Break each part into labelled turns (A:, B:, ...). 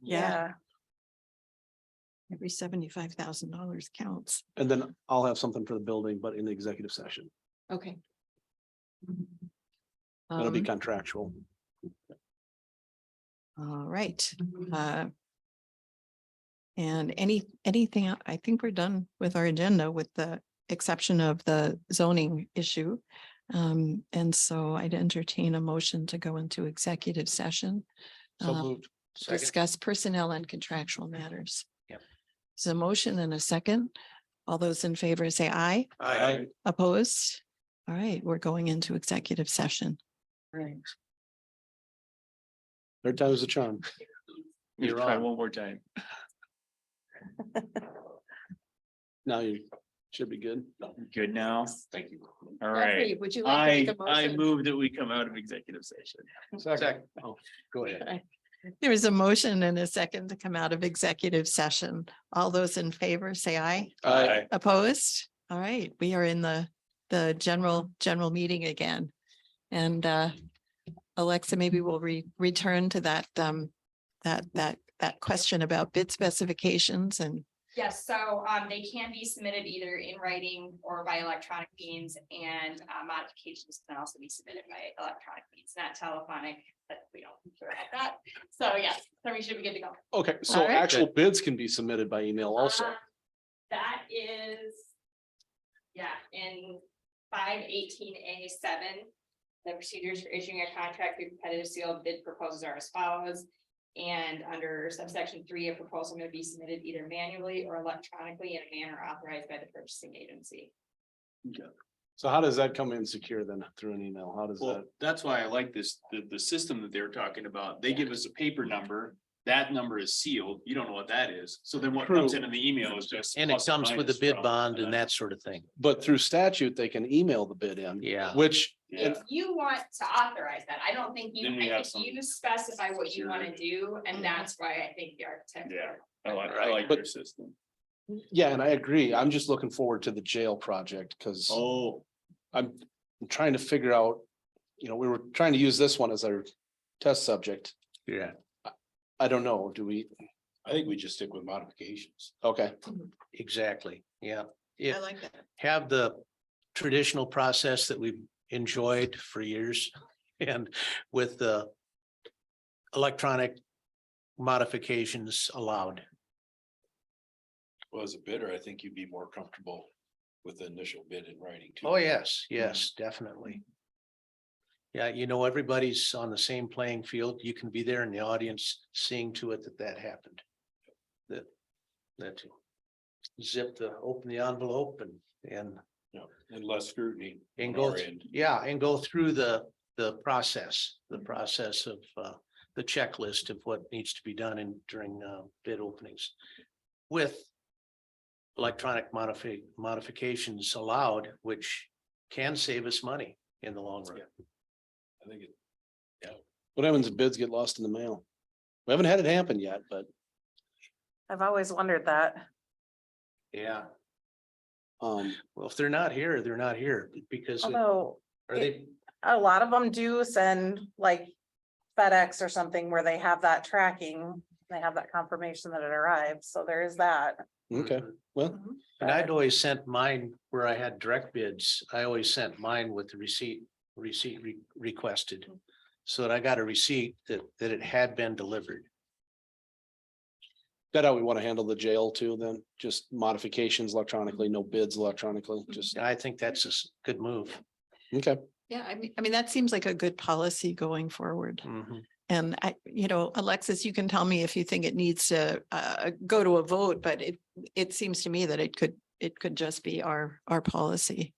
A: Yeah, every seventy-five thousand dollars counts.
B: And then I'll have something for the building, but in the executive session.
C: Okay.
B: That'll be
C: Um,
B: contractual.
A: All right, uh. And any, anything, I think we're done with our agenda with the exception of the zoning issue. Um, and so I'd entertain a motion to go into executive session.
B: So
A: uh,
B: moved.
A: discuss personnel and contractual matters.
D: Yep.
A: So motion and a second. All those in favor say aye.
B: Aye.
A: Opposed? All right, we're going into executive session.
C: Right.
B: Third time's a charm.
D: You
B: You're
D: try
B: on.
D: one more time.
B: Now you should be good.
D: Good now.
B: Thank you.
D: All
C: Jeffrey,
D: right.
C: Would you like to
D: I,
C: make a
D: I
C: motion?
D: move that we come out of executive session.
B: Second. Oh, go ahead.
C: Okay.
A: There is a motion and a second to come out of executive session. All those in favor, say aye.
B: Aye.
A: Opposed? All right, we are in the, the general, general meeting again. And uh, Alexa, maybe we'll re- return to that, um, that, that, that question about bid specifications and
E: Yes, so um they can be submitted either in writing or by electronic means and uh, modifications can also be submitted by electronic means, not telephonic, but we don't care about that. So yes, so we should be good to go.
B: Okay, so
A: Alright.
B: actual bids can be submitted by email also.
E: Um, That is, yeah, in five eighteen A seven. The procedures for issuing a contract through competitive sealed bid proposals are as follows. And under subsection three, a proposal may be submitted either manually or electronically in a manner authorized by the purchasing agency.
B: So how does that come in secure then through an email? How does
D: Well,
B: that?
D: that's why I like this, the, the system that they were talking about. They give us a paper number. That number is sealed. You don't know what that is. So then what comes
B: True.
D: in in the email is just.
F: And it
D: plus or
F: comes with a
D: minus
F: bid
D: from-
F: bond and that sort of thing.
B: But through statute, they can email the bid in.
F: Yeah.
B: Which,
D: Yeah.
E: If you want to authorize that, I don't think you,
D: Then we
E: I
D: have
E: think you
D: some Mm-hmm.
E: specify what you want to do,
A: Mhm.
E: and that's why I think the architect.
D: Yeah. I like, I
F: Right.
D: like their system.
B: yeah, and I agree. I'm just looking forward to the jail project because
D: Oh,
B: I'm I'm trying to figure out, you know, we were trying to use this one as our test subject.
F: Yeah.
B: I don't know, do we?
F: I think we just stick with modifications.
B: Okay,
F: Exactly, yeah. If,
A: I like that.
F: have the traditional process that we've enjoyed for years and with the electronic modifications allowed.
G: Well, as a bidder, I think you'd be more comfortable with the initial bid in writing. too.
F: Oh, yes, yes, definitely. Yeah, you know, everybody's on the same playing field. You can be there in the audience, seeing to it that that happened. That, that zip the, open the envelope and, and
G: Yeah, and less scrutiny.
F: And
G: on
F: go,
G: our
F: th-
G: end.
F: yeah, and go through the, the process, the process of, uh, the checklist of what needs to be done in, during, uh, bid openings. With electronic modifi- modifications allowed, which can save us money in the long run.
G: I think it-
B: what happens if bids get lost in the mail? We haven't had it happen yet, but
H: I've always wondered that.
F: Yeah,
B: um,
F: well, if they're not here, they're not here because it-
H: Although
F: are they,
H: a lot of them do send like FedEx or something where they have that tracking. They have that confirmation that it arrived. So there is that.
F: Hmm.
B: okay, well,
F: Mm-hmm. and I'd always sent mine where I had direct bids. I always sent mine with the receipt, receipt re- requested. So that I got a receipt that, that it had been delivered.
B: that how we want to handle the jail too then, just modifications electronically, no bids electronically, just,
F: I think that's a s- good move.
B: okay.
A: Yeah, I mean, I mean, that seems like a good policy going forward.
B: Mm-hmm.
A: And I, you know, Alexis, you can tell me if you think it needs to uh go to a vote, but it it seems to me that it could, it could just be our our policy.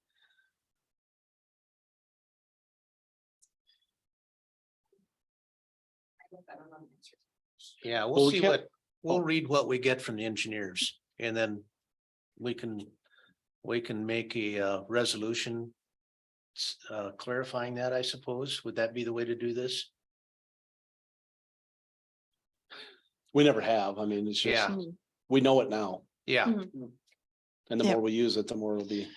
E: I don't know the answer.
F: Yeah,
B: Well,
F: we'll
B: we
F: see
B: can't- Oh.
F: what, we'll read what we get from the engineers and then we can, we can make a uh, resolution s- uh, clarifying that, I suppose. Would that be the way to do this?
B: We never have. I mean, it's just,
F: Yeah.
B: we know it now.
F: Yeah,
B: And the
A: Yeah.
B: more we use it, the more it'll be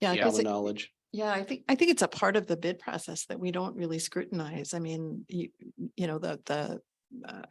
A: Yeah,
F: Yeah.
A: because
B: common knowledge.
A: Yeah, I think, I think it's a part of the bid process that we don't really scrutinize. I mean, you, you know, the, the uh,